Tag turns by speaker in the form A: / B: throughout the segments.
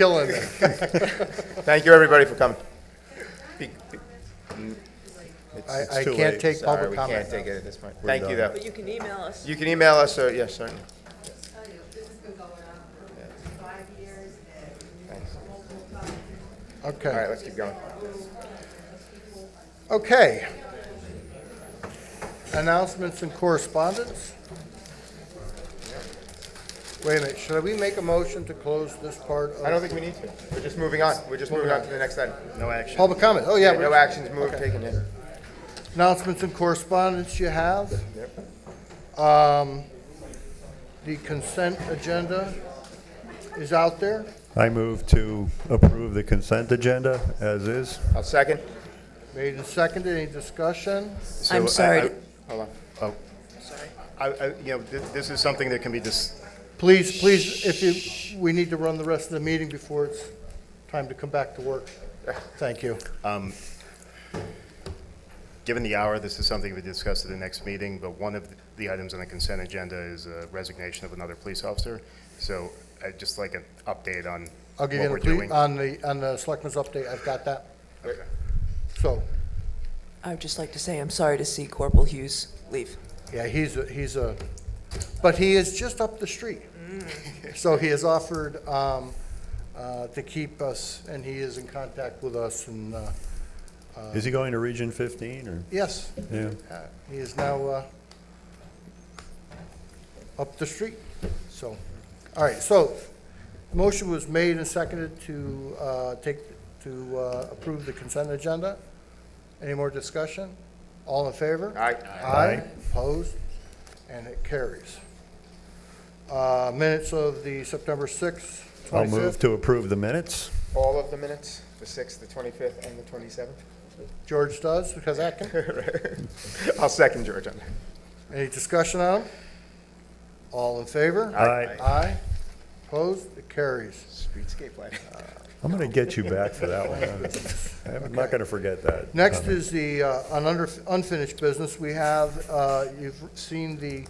A: Killing it.
B: Thank you, everybody, for coming. Be- be-
A: I,
C: It's
A: I
C: too
A: can't
C: late.
A: take
B: Sorry,
A: public
B: we
A: comment.
B: can't take it at this point.
C: We're
B: Thank you, though.
C: done.
D: But you can email us.
B: You can email us, or, yes, certainly. All
A: Okay,
B: right, let's keep going.
A: okay. Announcements and correspondence? Wait a minute, should we make a motion to close this part
B: I
A: of
B: don't think we need to. We're just moving on. We're just moving on to the next item. No action.
A: public comment? Oh, yeah.
B: No
A: we're-
B: actions moved,
A: Okay.
B: taken, yeah.
A: Announcements and correspondence you have?
B: Yep.
A: Um, The consent agenda is out there.
C: I move to approve the consent agenda as is.
B: I'll second.
A: Made and seconded, any discussion?
E: I'm sorry.
B: Hold on.
F: I, I, you know, this, this is something that can be just,
A: Please, please, if you, we need to run the rest of the meeting before it's time to come back to work. Thank you.
F: given the hour, this is something we discuss at the next meeting, but one of the items on the consent agenda is a resignation of another police officer. So I'd just like an update on
A: I'll
F: what
A: give you
F: we're
A: the, ple-
F: doing.
A: on the, on the selectmen's update, I've got that. So,
E: I would just like to say I'm sorry to see Corporal Hughes leave.
A: yeah, he's, a he's a, but he is just up the street.
F: Mm.
A: So he has offered, um, uh, to keep us, and he is in contact with us, and, uh,
C: Is he going to Region 15, or?
A: yes,
C: Yeah.
A: uh, he is now, uh, up the street, so, all right, so, motion was made and seconded to, uh, take, to, uh, approve the consent agenda. Any more discussion? All in favor?
B: All right.
A: Aye. Opposed? And it carries. Uh, minutes of the September sixth,
C: I'll move
A: twenty-fifth.
C: to approve the minutes.
B: All of the minutes, the 6th, the 25th, and the 27th?
A: George does, because that can,
B: I'll second George on that.
A: any discussion on them? All in favor?
C: Aye.
A: Aye. Opposed? It carries.
B: Streetscape lighting.
C: I'm going to get you back for that one. I'm not going to forget that.
A: Next is the, uh, on under- unfinished business, we have, uh, you've seen the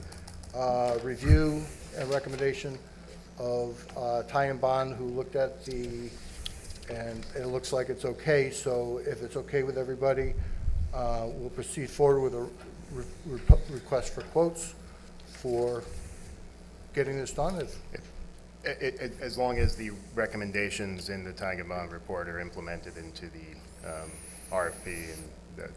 A: uh, review and recommendation of uh, Ty and Bond, who looked at the, and it looks like it's okay, so if it's okay with everybody, uh, we'll proceed forward with a re- re- request for quotes for getting this done. If- uh,
F: A- a- as long as the recommendations in the Tagambon report are implemented into the, um, RFP and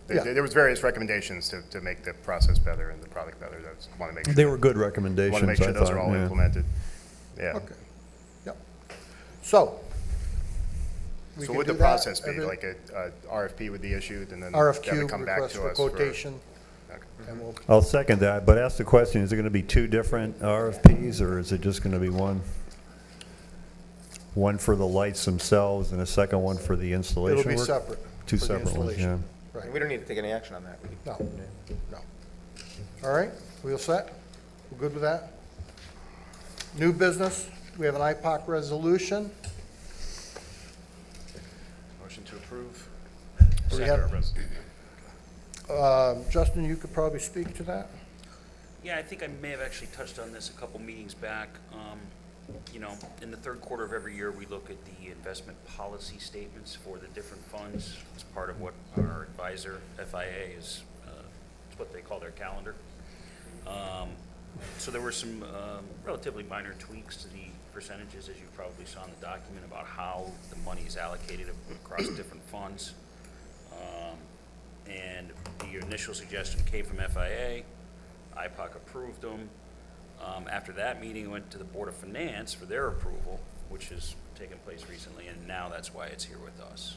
F: the-
A: Yeah.
F: there, there was various recommendations to, to make the process better and the product better. I just want to make sure.
C: They were good
F: Want to
C: recommendations, I
F: make
C: thought.
F: sure those are all
C: yeah.
F: implemented. Yeah.
A: Okay, yep. So. we
F: So
A: can
F: would
A: do
F: the
A: that.
F: process be
A: Every-
F: like a, a RFP would be issued and then that would
A: RFQ,
F: come back
A: request
F: to
A: for Mm-hmm.
F: us
A: quotation,
F: Okay.
A: and we'll,
C: I'll second that, but ask the question, is it going to be two different RFPs, or is it just going to be one? One for the lights themselves and a second one for the installation
A: it'll be
C: work?
A: separate.
C: Two
A: for the
C: separate ones, yeah.
A: installation. Right,
B: We don't need to take any action on that. We can-
A: no, no. All right, we all set? We're good with that? New business, we have an IPOC resolution.
F: Motion to approve.
A: Do we have- Um, Justin, you could probably speak to that?
G: Yeah, I think I may have actually touched on this a couple meetings back. Um, You know, in the third quarter of every year, we look at the investment policy statements for the different funds. It's part of what our advisor, FIA, is, uh, it's what they call their calendar. Um, So there were some um, relatively minor tweaks to the percentages, as you probably saw in the document, about how the money is allocated across different funds. Um, And the initial suggestion came from FIA. IPOC approved them. Um, After that meeting, it went to the Board of Finance for their approval, which has taken place recently, and now that's why it's here with us.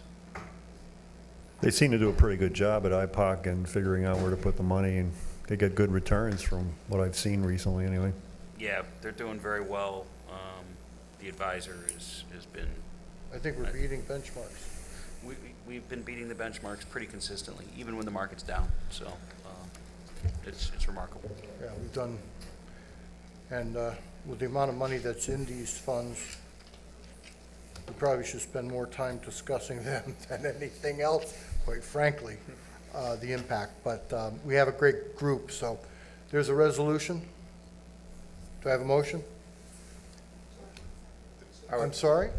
C: They seem to do a pretty good job at IPOC and figuring out where to put the money, and they get good returns from what I've seen recently, anyway.
G: Yeah, they're doing very well. Um, The advisor is, has been,
A: I think we're beating benchmarks.
G: we, we- we've been beating the benchmarks pretty consistently, even when the market's down, so um, it's, it's remarkable.
A: Yeah, we've done, and uh, with the amount of money that's in these funds, we probably should spend more time discussing them than anything else, quite frankly, uh, the impact. But um, we have a great group, so there's a resolution. Do I have a motion? I'm sorry?